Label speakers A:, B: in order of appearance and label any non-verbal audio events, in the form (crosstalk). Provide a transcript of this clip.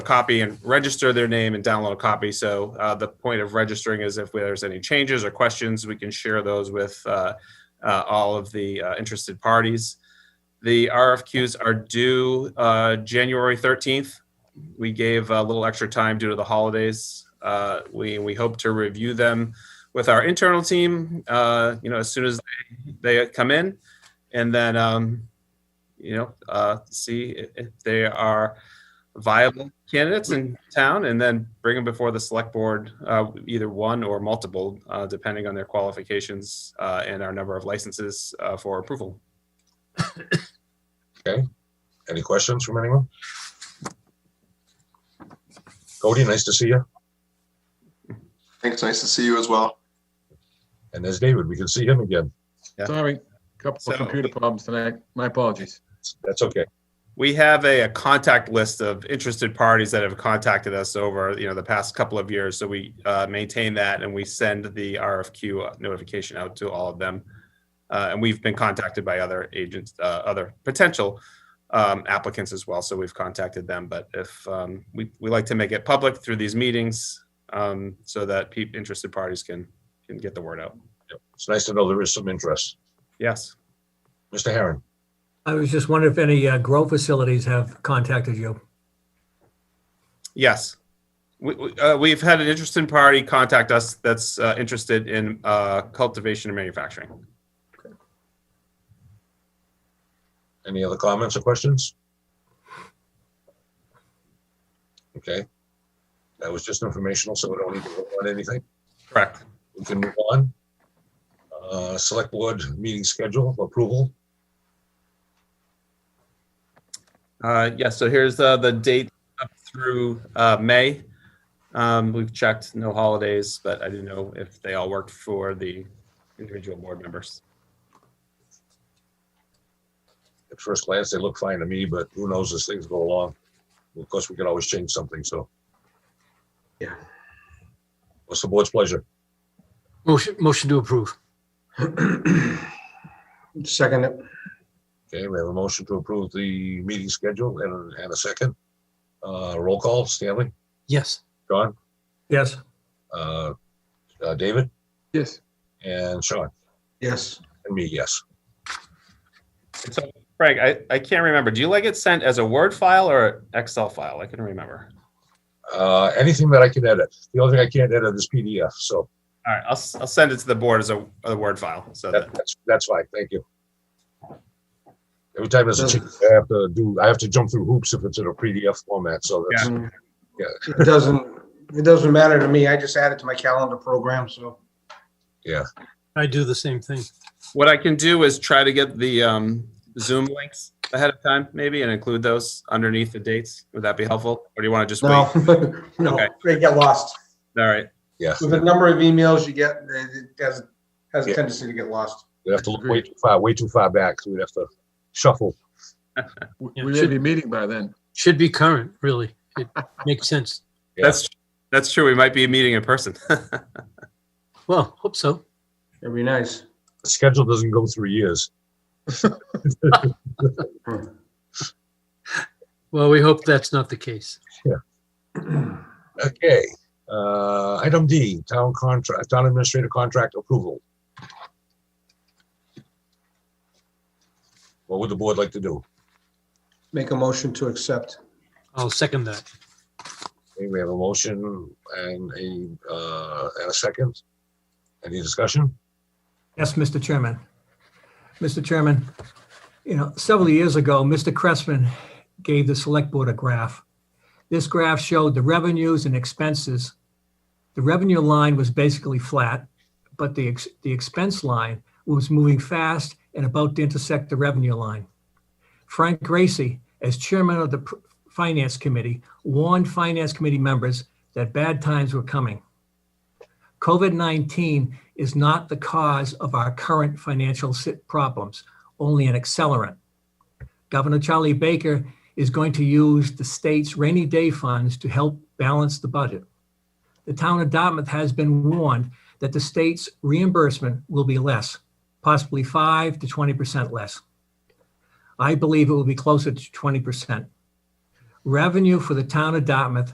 A: copy and register their name and download a copy. So uh, the point of registering is if there's any changes or questions, we can share those with uh, uh, all of the uh, interested parties. The RFQs are due uh, January 13th. We gave a little extra time due to the holidays. Uh, we we hope to review them with our internal team. Uh, you know, as soon as they, they come in, and then um, you know, uh, see if, if they are viable candidates in town and then bring them before the select board, uh, either one or multiple, uh, depending on their qualifications, uh, and our number of licenses, uh, for approval.
B: Any questions from anyone? Cody, nice to see you.
C: Thanks. Nice to see you as well.
B: And there's David. We can see him again.
A: Yeah.
D: Sorry, couple
A: So-
D: of computer problems tonight. My apologies.
B: That's okay.
A: We have a, a contact list of interested parties that have contacted us over, you know, the past couple of years. So we, uh, maintain that and we send the RFQ notification out to all of them. Uh, and we've been contacted by other agents, uh, other potential, um, applicants as well. So we've contacted them, but if, um, we, we like to make it public through these meetings, um, so that peop interested parties can, can get the word out.
B: It's nice to know there is some interest.
A: Yes.
B: Mr. Herron,
E: I was just wondering if any uh, grow facilities have contacted you.
A: Yes. We, we, uh, we've had an interested party contact us that's uh, interested in uh, cultivation and manufacturing.
B: any other comments or questions? Okay. That was just informational, so we don't need to vote on anything.
A: Correct.
B: We can move on. Uh, Select Board meeting schedule approval.
A: Uh, yes. So here's uh, the date up through uh, May. Um, we've checked no holidays, but I didn't know if they all worked for the individual board members.
B: At first glance, they look fine to me, but who knows as things go along. Of course, we can always change something, so.
F: Yeah.
B: What's the board's pleasure?
F: Motion, motion to
G: (clears throat)
F: approve.
C: Second it.
B: Okay, we have a motion to approve the meeting schedule and, and a second. Uh, roll call, Stanley,
F: Yes.
B: John,
E: Yes,
B: uh, uh, David,
D: Yes,
B: and Sean,
C: Yes.
B: and me, yes.
A: And so, Frank, I, I can't remember. Do you like it sent as a Word file or Excel file? I couldn't remember.
B: Uh, anything that I can edit. The only thing I can't edit is PDF, so
A: All right. I'll, s- I'll send it to the board as a, a Word file. So that,
B: that, that's, that's fine, thank you. Every time there's a change, I have to do, I have to jump through hoops if it's in a PDF format, so that's,
G: It doesn't, it doesn't matter to me. I just add it to my calendar program, so.
F: I do the same thing.
A: What I can do is try to get the um, Zoom links ahead of time, maybe, and include those underneath the dates. Would that be helpful? Or do you want to just wait?
G: No,
A: All Okay.
G: no, (laughs) they get lost.
A: right.
B: yeah.
G: With the number of emails you get, it it has, has a
B: Yeah.
G: tendency to get lost.
B: We have to look way too far, way too far back, so we'd have to shuffle.
D: we we
F: Yeah, it
D: may
F: should-
D: be meeting by then.
F: Should be current, really. It makes sense.
B: Yeah.
A: That's that's true. We might be meeting in person. (laughs)
F: Well, hope so.
G: It'd be nice.
B: The schedule doesn't go through years.
F: Well, we hope that's not the case.
B: Okay, uh, item D, town contract, town administrator contract approval. What would the board like to do?
G: Make a motion to accept.
F: I'll second that.
B: Okay, We have a motion and a, uh, and a second. Any discussion?
E: yes, Mr. Chairman. Mr. Chairman, you know, several years ago, Mr. Cressman gave the select board a graph. This graph showed the revenues and expenses. The revenue line was basically flat, but the, ex- the expense line was moving fast and about to intersect the revenue line. Frank Gracie, as chairman of the pr- Finance Committee, warned Finance Committee members that bad times were coming. COVID 19 is not the cause of our current financial sit- problems, only an accelerant. Governor Charlie Baker is going to use the state's rainy day funds to help balance the budget. The town of Dartmouth has been warned that the state's reimbursement will be less, possibly 5 to 20% less. I believe it will be closer to 20%. revenue for the town of Dartmouth